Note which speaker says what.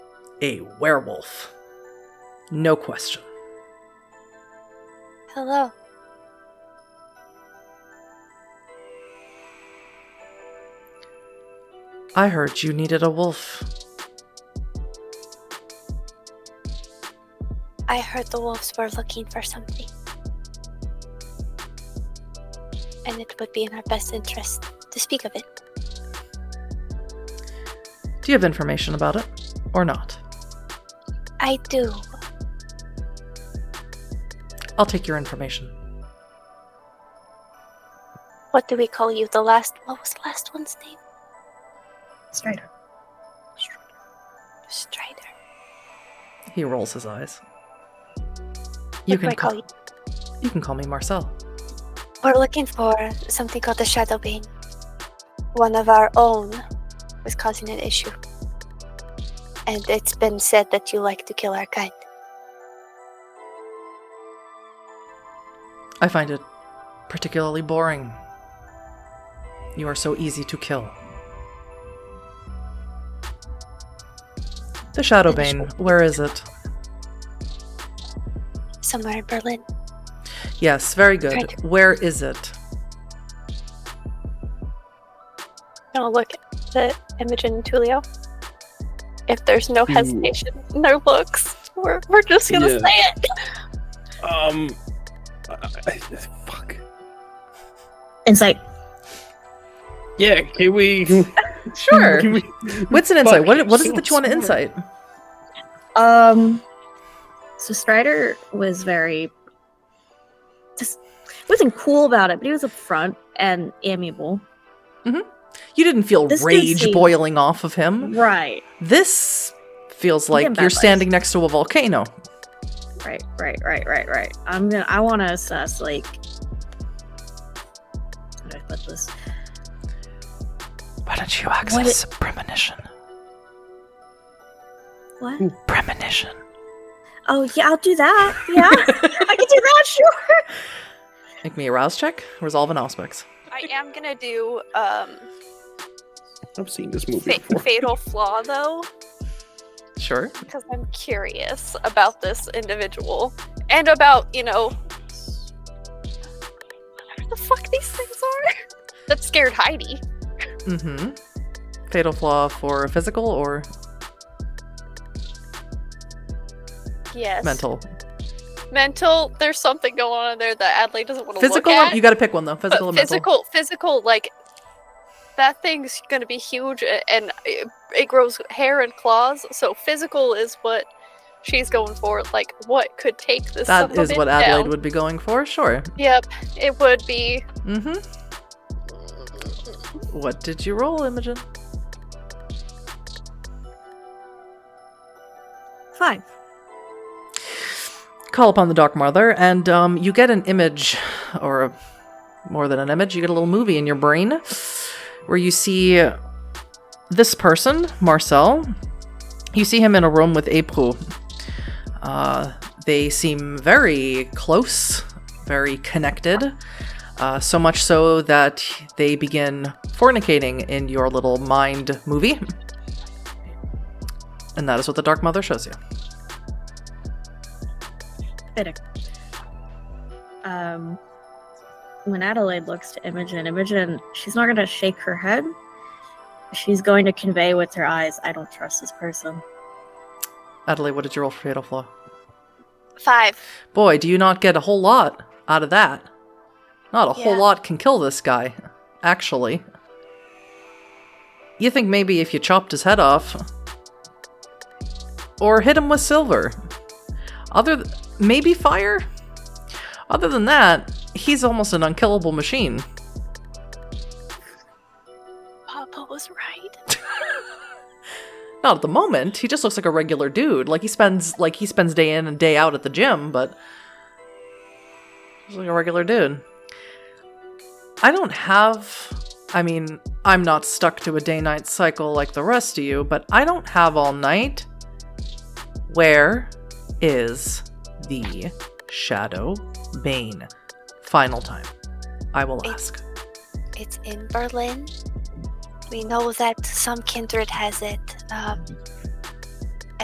Speaker 1: a werewolf. No question.
Speaker 2: Hello.
Speaker 1: I heard you needed a wolf.
Speaker 2: I heard the wolves were looking for something. And it would be in our best interest to speak of it.
Speaker 1: Do you have information about it or not?
Speaker 2: I do.
Speaker 1: I'll take your information.
Speaker 2: What do we call you? The last. What was the last one's name?
Speaker 3: Strider.
Speaker 2: Strider.
Speaker 1: He rolls his eyes. You
Speaker 2: What do
Speaker 1: can
Speaker 2: I call
Speaker 1: call
Speaker 2: you?
Speaker 1: you can call me Marcel.
Speaker 2: We're looking for something called the Shadow Bane. One of our own was causing an issue. And it's been said that you like to kill our kind.
Speaker 1: I find it particularly boring. You are so easy to kill. The Shadowbane, where is it?
Speaker 2: Somewhere in Berlin.
Speaker 1: Yes, very good.
Speaker 2: Right.
Speaker 1: Where is it?
Speaker 2: Now look at the Imogen and Tulio. If there's no
Speaker 4: Hmm.
Speaker 2: hesitation in their looks, we're, we're just gonna
Speaker 4: Yeah.
Speaker 2: say it.
Speaker 4: Um, I, I, fuck.
Speaker 3: Insight.
Speaker 4: Yeah, can we?
Speaker 1: Sure.
Speaker 4: Can we
Speaker 1: What's an insight? What,
Speaker 4: Fuck,
Speaker 1: what is
Speaker 4: so
Speaker 1: it that you want to
Speaker 4: smart.
Speaker 1: insight?
Speaker 3: Um. So Strider was very just wasn't cool about it, but he was upfront and amiable.
Speaker 1: You didn't feel
Speaker 3: This dude
Speaker 1: rage
Speaker 3: seems-
Speaker 1: boiling off of him.
Speaker 3: Right.
Speaker 1: This feels
Speaker 3: He didn't
Speaker 1: like you're
Speaker 3: bad vibes.
Speaker 1: standing next to a volcano.
Speaker 3: Right. Right. Right. Right. Right. I'm gonna. I want to assess like. How do I put this?
Speaker 1: Why don't you
Speaker 3: access
Speaker 1: premonition?
Speaker 3: What?
Speaker 1: Premonition.
Speaker 3: Oh yeah, I'll do that. Yeah, I can do that. Sure.
Speaker 1: Make me a rouse check. Resolve an aspects.
Speaker 5: I am gonna do um
Speaker 4: I've seen this movie
Speaker 5: fa-
Speaker 4: before.
Speaker 5: fatal flaw though,
Speaker 1: Sure.
Speaker 5: because I'm curious about this individual and about you know whatever the fuck these things are that scared Heidi.
Speaker 1: Mm-hmm. Fatal flaw for a physical or
Speaker 5: Yes.
Speaker 1: mental?
Speaker 5: Mental. There's something going on in there that Adley doesn't want to look
Speaker 1: Physical.
Speaker 5: at.
Speaker 1: Or, you got to pick one though. Physical. Or
Speaker 5: but
Speaker 1: mental.
Speaker 5: physical, physical, like that thing's gonna be huge, a- and it, it grows hair and claws. So physical is what she's going for. Like, what could take this?
Speaker 1: That
Speaker 5: son of
Speaker 1: is
Speaker 5: a
Speaker 1: what
Speaker 5: bitch
Speaker 1: Adelaide
Speaker 5: down?
Speaker 1: would be going for. Sure.
Speaker 5: Yep, it would be.
Speaker 1: Mm-hmm. What did you roll, Imogen?
Speaker 3: Fine.
Speaker 1: Call upon the Dark Mother, and um, you get an image, or a, more than an image. You get a little movie in your brain where you see this person, Marcel. You see him in a room with April. Uh, they seem very close, very connected. Uh, so much so that they begin fornicating in your little mind movie. And that is what the Dark Mother shows you.
Speaker 3: Fitting. Um, when Adelaide looks to Imogen, Imogen, she's not gonna shake her head. She's going to convey with her eyes, "I don't trust this person."
Speaker 1: Adelaide, what did you roll for Fatal Flaw?
Speaker 5: Five.
Speaker 1: Boy, do you not get a whole lot out of that. Not a whole
Speaker 5: Yeah.
Speaker 1: lot can kill this guy, actually. You think maybe if you chopped his head off or hit him with silver. Other th- maybe fire? Other than that, he's almost an unkillable machine.
Speaker 2: Papa was right.
Speaker 1: Not at the moment. He just looks like a regular dude. Like he spends like he spends day in and day out at the gym, but he's like a regular dude. I don't have I mean, I'm not stuck to a day night cycle like the rest of you, but I don't have all night. Where is the Shadow Bane? Final time. I will ask.
Speaker 2: It's in Berlin. We know that some kindred has it. Um,